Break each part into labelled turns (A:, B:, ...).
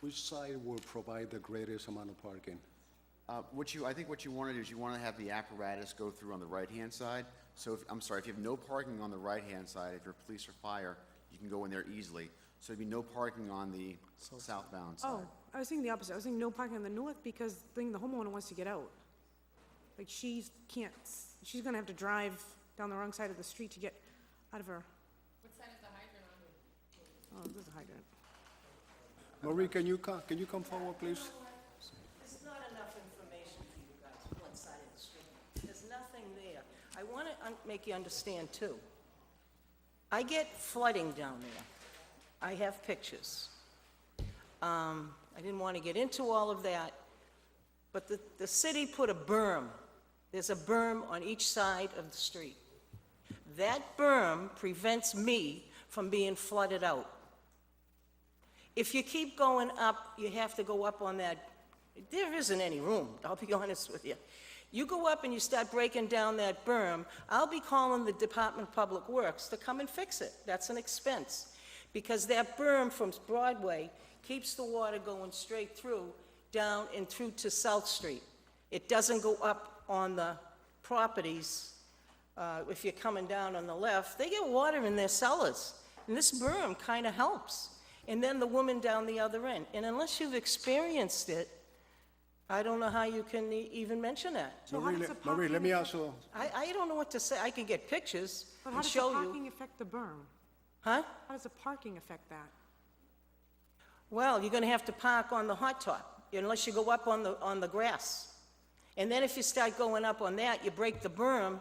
A: Which side will provide the greatest amount of parking?
B: Uh, What you, I think what you want to do is you want to have the apparatus go through on the right-hand side. So if, I'm sorry, if you have no parking on the right-hand side, if you're police or fire, you can go in there easily. So there'd be no parking on the southbound side.
C: Oh, I was thinking the opposite. I was thinking no parking on the north because thing the homeowner wants to get out. Like she's can't, s- she's gonna have to drive down the wrong side of the street to get out of her. What side is the hydrant on? Oh, this is a hydrant.
A: Marie, can you come, can you come forward, please?
D: There's not enough information for you guys, one side of the street. There's nothing there. I want to make you understand, too. I get flooding down there. I have pictures. Um, I didn't want to get into all of that, but the, the city put a berm. There's a berm on each side of the street. That berm prevents me from being flooded out. If you keep going up, you have to go up on that, there isn't any room, I'll be honest with you. You go up and you start breaking down that berm, I'll be calling the Department of Public Works to come and fix it. That's an expense. Because that berm from Broadway keeps the water going straight through, down and through to South Street. It doesn't go up on the properties uh, if you're coming down on the left, they get water in their cellars. And this berm kind of helps. And then the woman down the other end. And unless you've experienced it, I don't know how you can e- even mention that.
C: So how
A: Marie,
C: does the
A: le- Marie, let
C: parking
A: me
C: affect-
A: ask you,
D: I, I don't know what to say. I can get pictures
C: But how
D: and
C: does the
D: show you.
C: parking affect the berm?
D: Huh?
C: How does the parking affect that?
D: Well, you're gonna have to park on the hot top unless you go up on the, on the grass. And then if you start going up on that, you break the berm,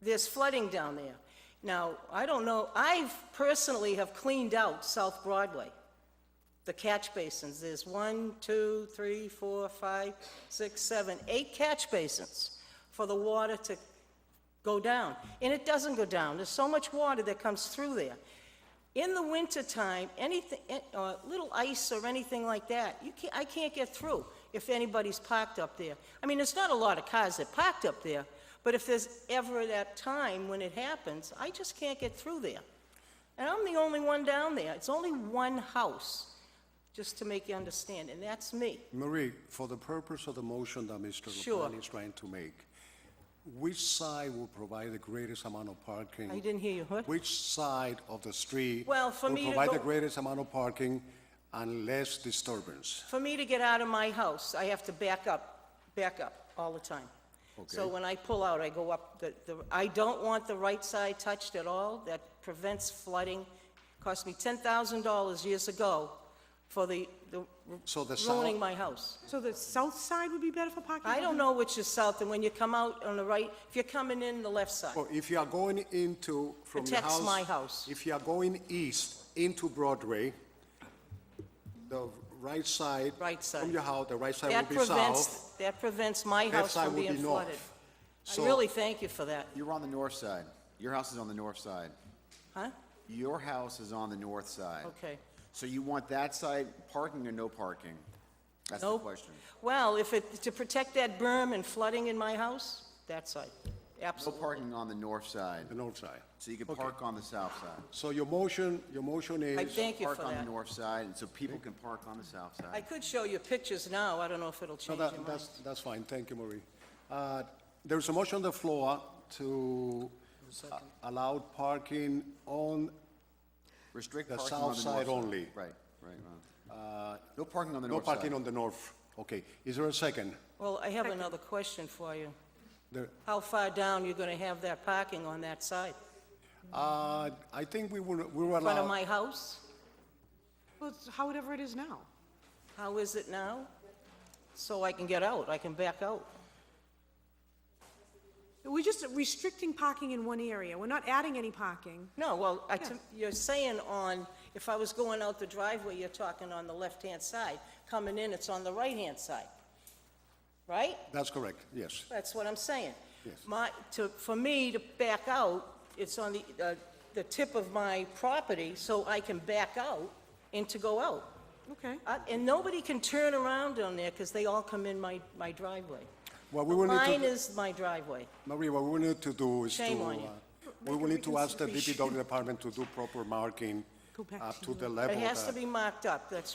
D: there's flooding down there. Now, I don't know, I've personally have cleaned out South Broadway, the catch basins. There's one, two, three, four, five, six, seven, eight catch basins for the water to go down. And it doesn't go down. There's so much water that comes through there. In the wintertime, anything, eh, uh, little ice or anything like that, you can't, I can't get through if anybody's parked up there. I mean, there's not a lot of cars that parked up there, but if there's ever that time when it happens, I just can't get through there. And I'm the only one down there. It's only one house, just to make you understand, and that's me.
A: Marie, for the purpose of the motion that Mr.
D: Sure.
A: LaPlante is trying to make, which side will provide the greatest amount of parking?
D: I didn't hear you, what?
A: Which side of the street?
D: Well, for me to
A: Will provide the
D: go-
A: greatest amount of parking and less disturbance?
D: For me to get out of my house, I have to back up, back up all the time. So when I pull out, I go up, the, the, I don't want the right side touched at all. That prevents flooding. Cost me ten thousand dollars years ago for the, the
A: So the south-
D: ruining my house.
C: So the south side would be better for parking?
D: I don't know which is south, and when you come out on the right, if you're coming in the left side.
A: Or if you are going into, from your
D: Protects
A: house...
D: my house.
A: If you are going east into Broadway, the right side...
D: Right side.
A: From your house, the right side will
D: That
A: be south,
D: prevents, that prevents my
A: left
D: house
A: side
D: from
A: will be
D: being flooded.
A: north.
D: I
A: So-
D: really thank you for that,
B: You're on the north side. Your house is on the north side.
D: huh?
B: Your house is on the north side.
D: Okay.
B: So you want that side parking or no parking? That's the
D: No.
B: question.
D: Well, if it, to protect that berm and flooding in my house, that side,
B: No
D: absolutely.
B: parking on the north side,
A: the north side.
B: so you can park on the south side.
A: So your motion, your motion
D: I
A: is,
D: thank you for
B: Park on the
D: that.
B: north side, and so people can park on the south
D: I
B: side.
D: could show you pictures now, I don't know if
A: no,
D: it'll change your
A: that,
D: mind.
A: that's, that's fine, thank you, Marie. Uh, There's a motion on the floor to uh, allow parking on,
B: Restrict
A: The
B: parking on the north
A: south
B: side.
A: side only. Uh,
B: Right, right, right. No parking on the
A: no
B: north side.
A: parking on the north. Okay, is there a second?
D: Well, I have another question for you.
A: There-
D: How far down you gonna have that parking on that side?
A: uh, I think we will, we will
D: In front of
A: allow,
D: my house?
C: Well, it's however it is now.
D: How is it now? So I can get out, I can back out.
C: We're just restricting parking in one area. We're not adding any parking.
D: No, well, I, to- you're saying on, if I was going out the driveway, you're talking on the left-hand side. Coming in, it's on the right-hand side, right?
A: that's correct, yes.
D: That's what I'm saying.
A: Yes.
D: My, to, for me to back out, it's on the, uh, the tip of my property, so I can back out and to go out.
C: Okay.
D: Uh, And nobody can turn around on there, because they all come in my, my driveway.
A: What we will need
D: Mine
A: to,
D: is my driveway.
A: Marie, what we will need to do is to,
D: Shame on you.
A: uh, we will need to ask the DPW department to do proper marking
C: Go back
A: up
C: to
A: to
C: the-
A: the
D: It
A: level
D: has to
A: that
D: be marked up, that's